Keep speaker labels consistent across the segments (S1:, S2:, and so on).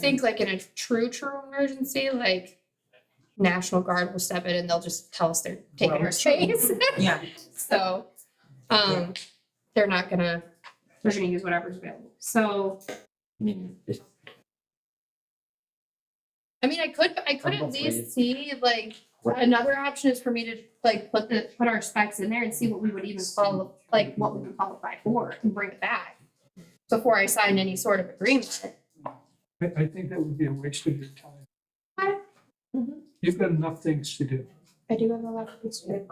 S1: think like in a true, true emergency, like National Guard will step in and they'll just tell us they're taking
S2: Well,
S1: our space.
S2: Yeah,
S1: So, um, they're not gonna, they're gonna use whatever's available. So,
S3: I mean, if-
S1: I mean, I could, I could at
S3: Probably.
S1: least see like,
S3: Right.
S1: another option is for me to like put the, put our specs in there and see what we would even follow, like what we would qualify for and bring it back before I sign any sort of agreement.
S4: I, I think that would be a waste of your time.
S1: Okay. Mhm.
S4: You've got enough things to do.
S1: I do have a lot of concerns.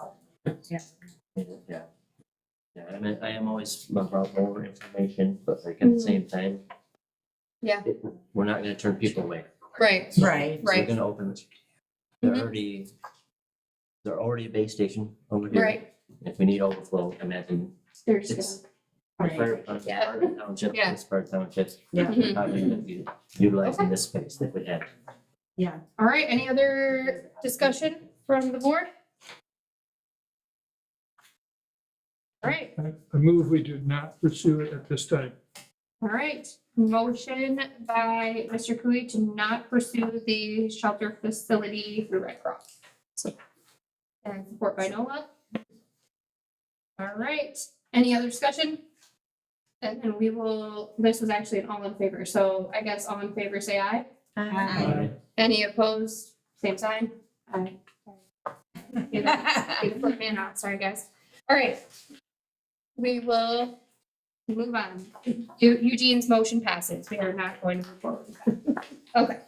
S3: yeah. Yeah, I mean, I am always about more information, but like at the
S1: Mhm.
S3: same time.
S1: Yeah.
S3: it- We're not gonna turn people away.
S1: Right,
S2: right.
S3: We're
S1: Right.
S3: gonna open, they're
S1: Mhm.
S3: already, they're already a base station over here.
S1: right.
S3: If we need overflow, imagine
S1: There's,
S3: It's-
S1: gonna-
S3: the
S2: Right.
S3: fire department,
S1: Yeah.
S3: fire township,
S1: Yeah.
S3: this part township.
S2: Yeah.
S1: Mhm.
S3: Probably gonna be utilizing this space that we have.
S1: all right, any other discussion from the board? All right,
S4: I, I move we do not pursue it at this time.
S1: all right. Motion by Mr. Cooey to not pursue the shelter facility through Red Cross. So, And support by Nola. All right, any other discussion? And, and we will, this is actually an all in favor, so I guess all in favor, say aye.
S2: Aye.
S1: Any opposed? Same sign? Aye. You know, you can flip me and out, sorry guys. All right. We will move on. Eu- Eugene's motion passes. We are not going to move forward. Okay.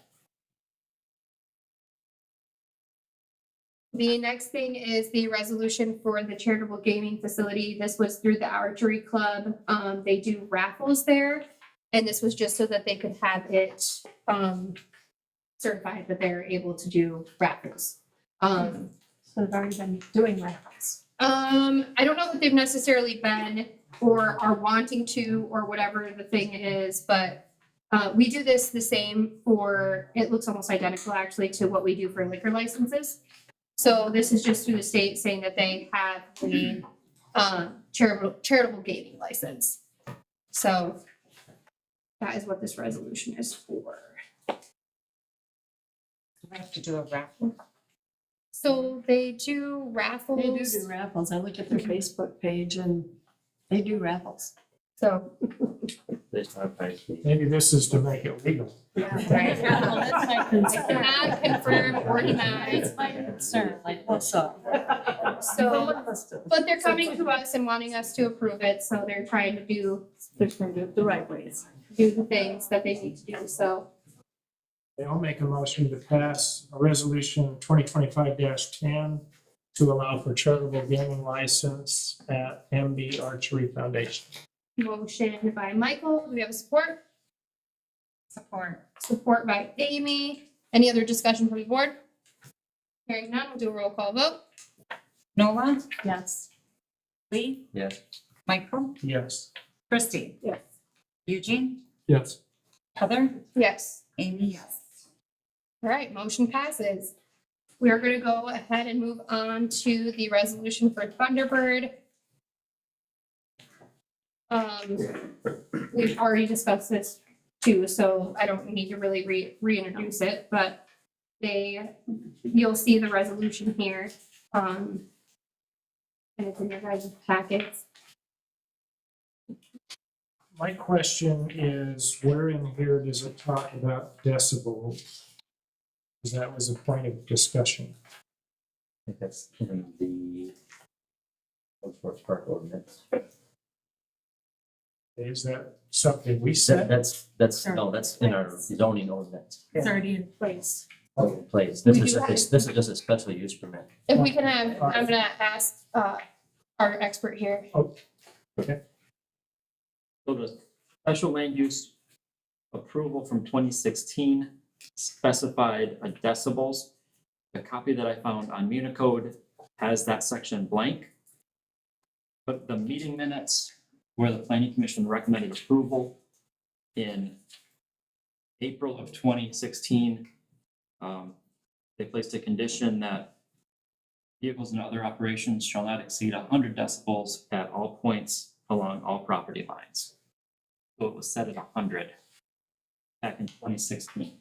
S1: The next thing is the resolution for the charitable gaming facility. This was through the archery club. Um, they do raffles there. And this was just so that they could have it, um, certified that they're able to do raffles. Um,
S5: So they've already been doing rounds.
S1: um, I don't know that they've necessarily been or are wanting to or whatever the thing is, but uh, we do this the same for, it looks almost identical actually to what we do for liquor licenses. So this is just through the state saying that they have the uh, charitable, charitable gaming license. So that is what this resolution is for.
S2: We Have to do a raffle.
S1: So they do raffles.
S5: They do do raffles. I look at their Facebook page and they do raffles.
S1: So,
S3: This time, I-
S4: Maybe this is to make it legal.
S1: right.
S5: That's my concern.
S1: I cannot confirm or deny.
S5: That's my concern, like, what's up?
S1: So, but they're
S5: So-
S1: coming to us and wanting us to approve it, so they're trying to do,
S5: They're trying to do it the right ways.
S1: do the things that they need to do, so.
S6: I'll make a motion to pass a resolution twenty twenty-five ten to allow for charitable gaming license at MB Archery Foundation.
S1: Motion by Michael, do we have support?
S2: Support.
S1: Support by Amy. Any other discussion from the board? Hearing none, we'll do a roll call vote.
S2: Nola,
S5: Yes.
S2: Lee,
S3: Yes,
S2: Michael,
S6: Yes.
S2: Christie.
S1: Yes.
S2: Eugene,
S4: Yes.
S2: Heather,
S1: Yes.
S2: Amy, yes.
S1: All right, motion passes. We are gonna go ahead and move on to the resolution for Thunderbird. Um, we've already discussed this too, so I don't need to really re- reintroduce it, but they, you'll see the resolution here, um. And it's in your guys' packets.
S6: My question is, where in here does it talk about decibels? Because that was a point of discussion.
S3: I think that's in the Old Forest Park ordinance.
S6: Is that something we
S3: That-
S6: said?
S3: That's, that's, no, that's in our zoning ordinance.
S2: It's already in place.
S3: Oh, Place, this
S1: We
S3: is,
S1: do
S3: a- this this is just a special use permit.
S1: If we can have, I'm gonna ask, uh, our expert here.
S7: So the special land use approval from twenty sixteen specified a decibels. The copy that I found on Municode has that section blank. But the meeting minutes where the planning commission recommended approval in April of twenty sixteen, um, they placed a condition that vehicles and other operations shall not exceed hundred decibels at all points along all property lines. So it was set at hundred.
S3: back in twenty sixteen.